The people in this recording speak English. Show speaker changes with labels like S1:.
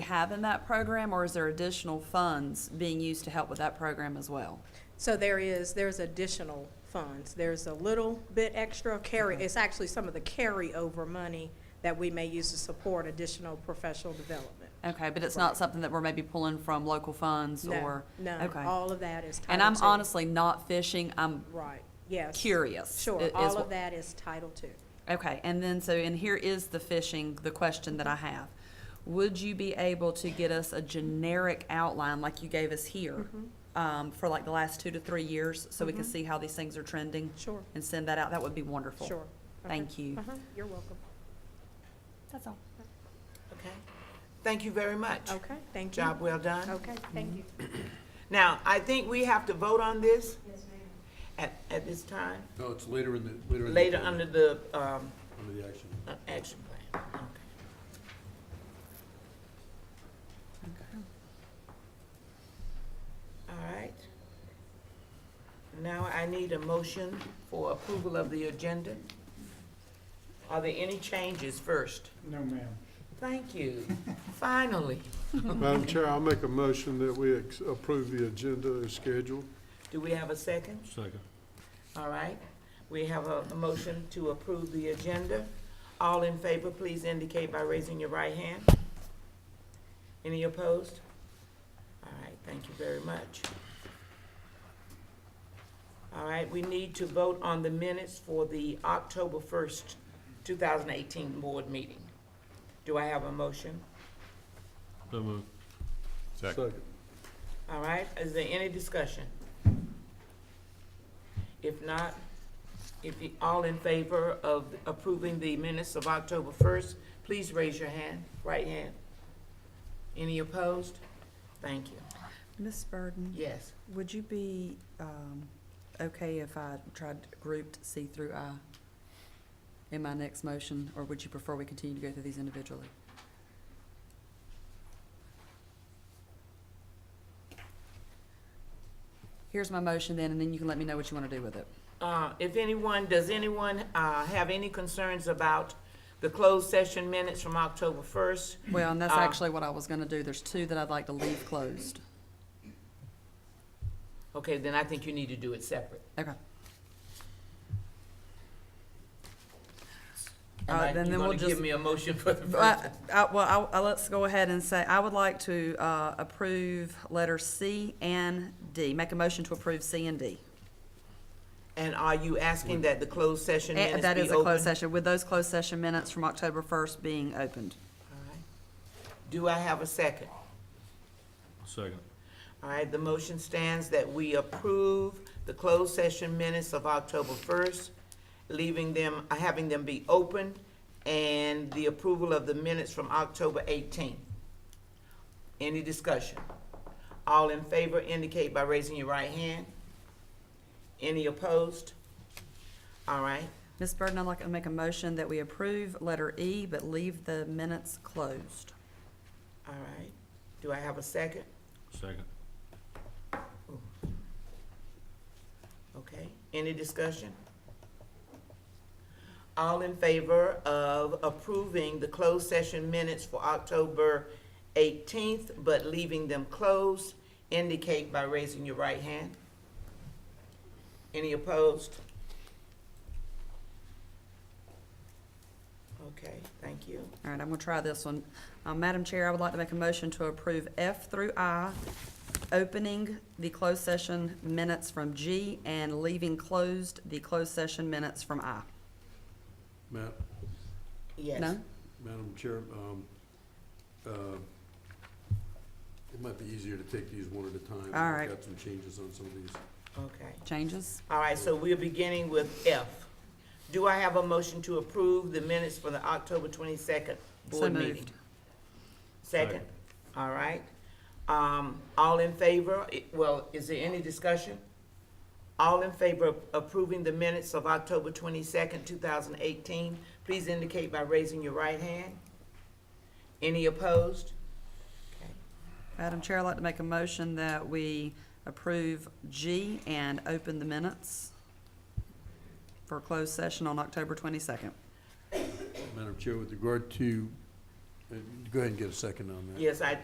S1: have in that program, or is there additional funds being used to help with that program as well?
S2: So there is, there's additional funds. There's a little bit extra carry, it's actually some of the carryover money that we may use to support additional professional development.
S1: Okay, but it's
S2: Right.
S1: not something that we're maybe pulling from local funds
S2: No,
S1: or?
S2: No,
S1: Okay.
S2: all of that is Title
S1: And I'm
S2: II.
S1: honestly not fishing, I'm
S2: Right, yes.
S1: curious. i-
S2: Sure,
S1: is
S2: all
S1: what-
S2: of that is Title II.
S1: Okay, and then, so, and here is the fishing, the question that I have. Would you be able to get us a generic outline like you gave us here?
S2: Mm-hmm.
S1: Um, for like the last two to three years, so we can see how these things are trending?
S2: Sure,
S1: And send that out, that would be wonderful.
S2: sure. Okay.
S1: Thank you.
S2: Uh-huh, You're welcome.
S1: That's all.
S3: Okay. Thank you very much.
S2: Okay, thank you.
S3: Job well done.
S2: Okay, thank you.
S3: Now, I think we have to vote on this? At, at this time,
S4: No, it's later in the, later in the.
S3: later under the, um,
S4: Under the action.
S3: uh, action plan. Okay. All right. Now I need a motion for approval of the agenda. Are there any changes first?
S5: No, ma'am.
S3: Thank you. Finally.
S6: Madam Chair, I'll make a motion that we ex- approve the agenda as scheduled.
S3: Do we have a second?
S4: Second.
S3: All right, we have a a motion to approve the agenda. All in favor, please indicate by raising your right hand. Any opposed? All right, thank you very much. All right, we need to vote on the minutes for the October first, two thousand eighteen board meeting. Do I have a motion?
S4: So moved.
S6: Second.
S3: All right, is there any discussion? If not, if you, all in favor of approving the minutes of October first, please raise your hand, right hand. Any opposed? Thank you.
S1: Ms. Burden,
S3: Yes.
S1: would you be, um, okay if I tried grouped C through I in my next motion, or would you prefer we continue to go through these individually? Here's my motion then, and then you can let me know what you want to do with it.
S3: Uh, if anyone, does anyone, uh, have any concerns about the closed session minutes from October first?
S1: Well, and that's
S3: Uh,
S1: actually what I was gonna do. There's two that I'd like to leave closed.
S3: Okay, then I think you need to do it separate.
S1: Okay.
S3: And
S1: Uh,
S3: I-
S1: then-
S3: you
S1: then we'll
S3: gonna give
S1: just-
S3: me a motion for the first?
S1: I, I, well, I, I, let's go ahead and say, I would like to, uh, approve letter C and D. Make a motion to approve C and D.
S3: And are you asking that the closed session minutes be
S1: Eh,
S3: open?
S1: That is a closed session, with those closed session minutes from October first being opened.
S3: All right. Do I have a second?
S4: Second.
S3: All right, the motion stands that we approve the closed session minutes of October first, leaving them, uh, having them be open, and the approval of the minutes from October eighteenth. Any discussion? All in favor indicate by raising your right hand. Any opposed? All right,
S1: Ms. Burden, I'd like to make a motion that we approve letter E, but leave the minutes closed.
S3: all right. Do I have a second?
S4: Second.
S3: Okay, any discussion? All in favor of approving the closed session minutes for October eighteenth, but leaving them closed, indicate by raising your right hand. Any opposed? Okay, thank you.
S1: All right, I'm gonna try this one. Uh, Madam Chair, I would like to make a motion to approve F through I, opening the closed session minutes from G and leaving closed the closed session minutes from I.
S4: Ma-
S3: Yes.
S1: No?
S4: Madam Chair, um, uh, it might be easier to take these one at a time.
S1: All
S4: I've
S1: right.
S4: Got some changes on some of these.
S3: Okay,
S1: Changes?
S3: all right, so we're beginning with F. Do I have a motion to approve the minutes for the October twenty-second
S1: So
S3: board meeting?
S1: moved.
S3: Second,
S4: Second.
S3: all right. Um, all in favor, I- well, is there any discussion? All in favor of approving the minutes of October twenty-second, two thousand eighteen, please indicate by raising your right hand. Any opposed? Okay.
S1: Madam Chair, I'd like to make a motion that we approve G and open the minutes for closed session on October twenty-second.
S4: Madam Chair, with regard to, uh, go ahead and get a second on that.
S3: Yes, I